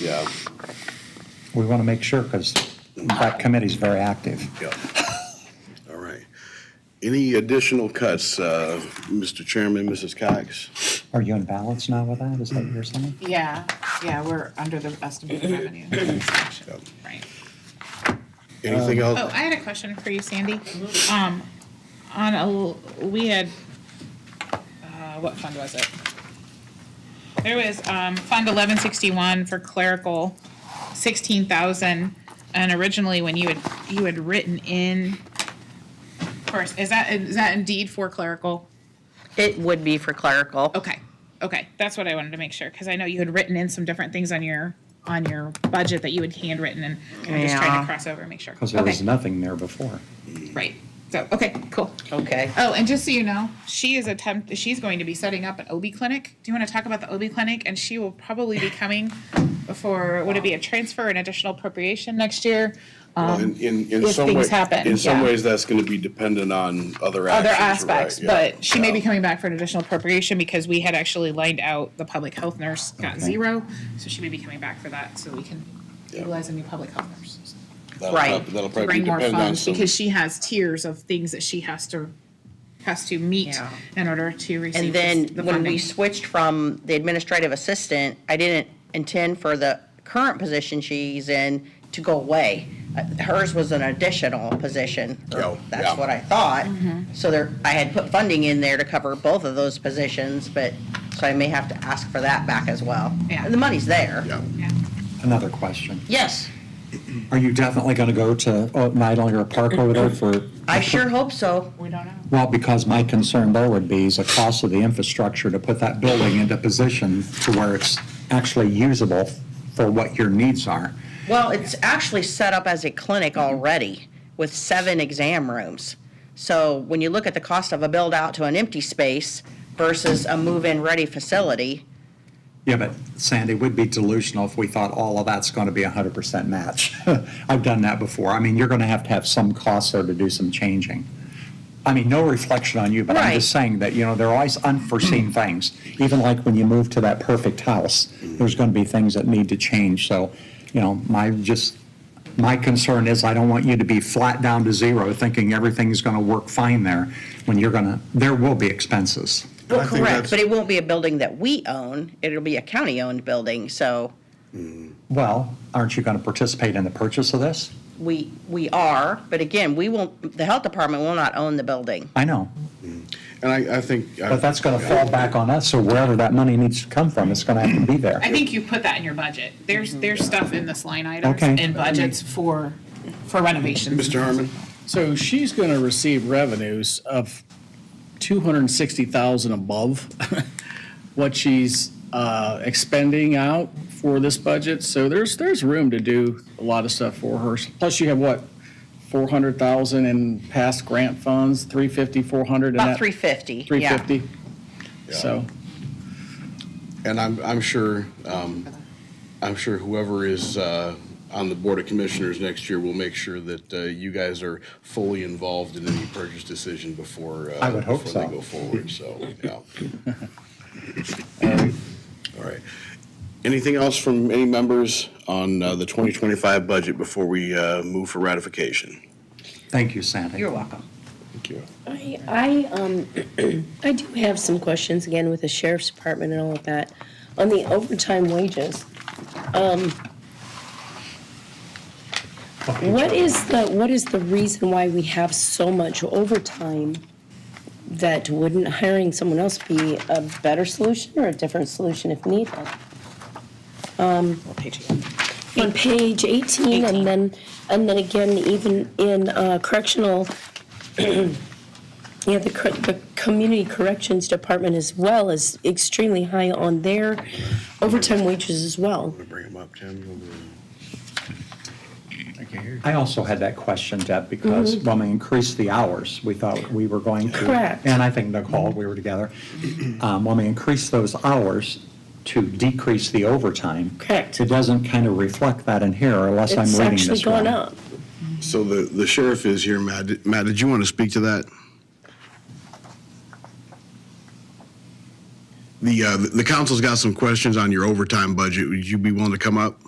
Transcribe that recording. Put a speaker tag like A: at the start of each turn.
A: Yeah,
B: We want to make sure, because that committee's very active.
A: yeah. All right. Any additional cuts, uh, Mr. Chairman, Mrs. Cox?
B: Are you in balance now with that? Is that what you're saying?
C: Mm-hmm.
D: Yeah, yeah, we're under the estimated revenue. section, Right.
A: Anything else?
C: Oh, I had a question for you, Sandy. Um, on a, l- we had, uh, what fund was it? There was, um, Fund eleven sixty-one for clerical, sixteen thousand. And originally, when you had, you had written in, first, is that, is that indeed for clerical?
E: It would be for clerical.
C: Okay, okay, that's what I wanted to make sure, because I know you had written in some different things on your, on your budget that you had handwritten, and I'm just trying
E: Yeah.
C: to cross over and make sure.
B: Because there was
C: Okay.
B: nothing there before.
C: Right. So, okay, cool.
E: Okay.
C: Oh, and just so you know, she is attempt. She's going to be setting up an OB clinic. Do you want to talk about the OB clinic? And she will probably be coming for would it be a transfer, an additional appropriation next year?
A: Well, in- in- in
C: oh, if
A: some
C: things
A: way-
C: happen,
A: In some
C: yeah.
A: ways, that's going to be dependent on other
C: Other
A: actions, right,
C: aspects,
A: yeah,
C: but she may be
A: yeah.
C: coming back for an additional appropriation because we had actually lined out the public health nurse got
B: Okay.
C: zero, so she may be coming back for that, so we can
A: Yeah.
C: utilize a new public health nurse.
A: That'll
E: Right.
A: prob- That'll
C: to
A: probably
C: bring more
A: depend on
C: funds
A: some.
C: because she has tiers of things that she has to has to meet
E: Yeah.
C: in order to receive
E: And
C: this-
E: then
C: the
E: when
C: funding.
E: we switched from the administrative assistant, I didn't intend for the current position she's in to go away. Uh, Hers was an additional position. or
A: Yeah, yeah.
E: That's what I thought.
C: Mm-hmm.
E: So there, I had put funding in there to cover both of those positions, but, so I may have to ask for that back as well.
C: Yeah.
E: The money's there.
A: Yeah.
C: Yeah.
B: Another question.
E: Yes,
B: Are you definitely going to go to oh, Nightingale or Park over there for,
E: I sure hope so.
C: We don't know.
B: well, because my concern there would be is the cost of the infrastructure to put that building into position to where it's actually usable for what your needs are.
E: Well, it's actually set up as a clinic already with seven exam rooms. So when you look at the cost of a build out to an empty space versus a move in ready facility,
B: Yeah, but Sandy, we'd be delusional if we thought all of that's going to be a hundred percent match. I've done that before. I mean, you're going to have to have some costs there to do some changing. I mean, no reflection on you, but I'm just
E: Right.
B: saying that, you know, there are always unforeseen things. Even like when you move to that perfect house, there's going to be things that need to change. So, you know, my just, my concern is I don't want you to be flat down to zero thinking everything's going to work fine there when you're going to, there will be expenses.
E: well,
A: I think
E: correct,
A: that's-
E: but it won't be a building that we own. It'll be a county owned building. So
B: Well, aren't you going to participate in the purchase of this?
E: we, we are, but again, we won't, the health department will not own the building.
B: I know,
A: And I, I think. uh,
B: but that's going to fall back on us, so wherever that money needs to come from, it's going to have to be there.
C: I think you put that in your budget. There's
A: Mm-hmm.
C: there's stuff in this line items
B: Okay.
C: and budgets for for renovations.
A: Mr. Herman?
F: So she's going to receive revenues of 260,000 above what she's uh, expending out for this budget. So there's, there's room to do a lot of stuff for her. Plus you have what, 400,000 in past grant funds, 350, 400? and
E: About
F: that-
E: three fifty.
F: 350? So,
A: And I'm, I'm sure, um, I'm sure whoever is, uh, on the Board of Commissioners next year will make sure that, uh, you guys are fully involved in any purchase decision before, uh,
B: I would hope
A: before they
B: so.
A: go forward, so, yeah. All right. Anything else from any members on, uh, the 2025 budget before we, uh, move for ratification?
B: Thank you, Sandy.
E: You're welcome.
A: Thank you.
G: I, I, um, I do have some questions again with the sheriff's department and all of that. On the overtime wages, um, what is the, what is the reason why we have so much overtime? That wouldn't hiring someone else be a better solution or a different solution if needed? On page eighteen and then, and then again, even in uh, correctional, Yeah, the, cor- the Community Corrections Department as well is extremely high on their overtime wages as well.
A: Bring them up, Tim.
B: I also had that question, Deb, because when we increased the hours, we thought we were going to.
G: Mm-hmm. Correct.
B: And I think Nicole, we were together. Um, When we increased those hours to decrease the overtime.
G: Correct.
B: It doesn't kind of reflect that in here unless I'm
G: It's
B: reading this
G: actually gone
B: wrong.
G: up.
A: So the, the sheriff is here, Matt. Did- Matt, did you want to speak to that? The, uh, the council's got some questions on your overtime budget. Would you be willing to come up?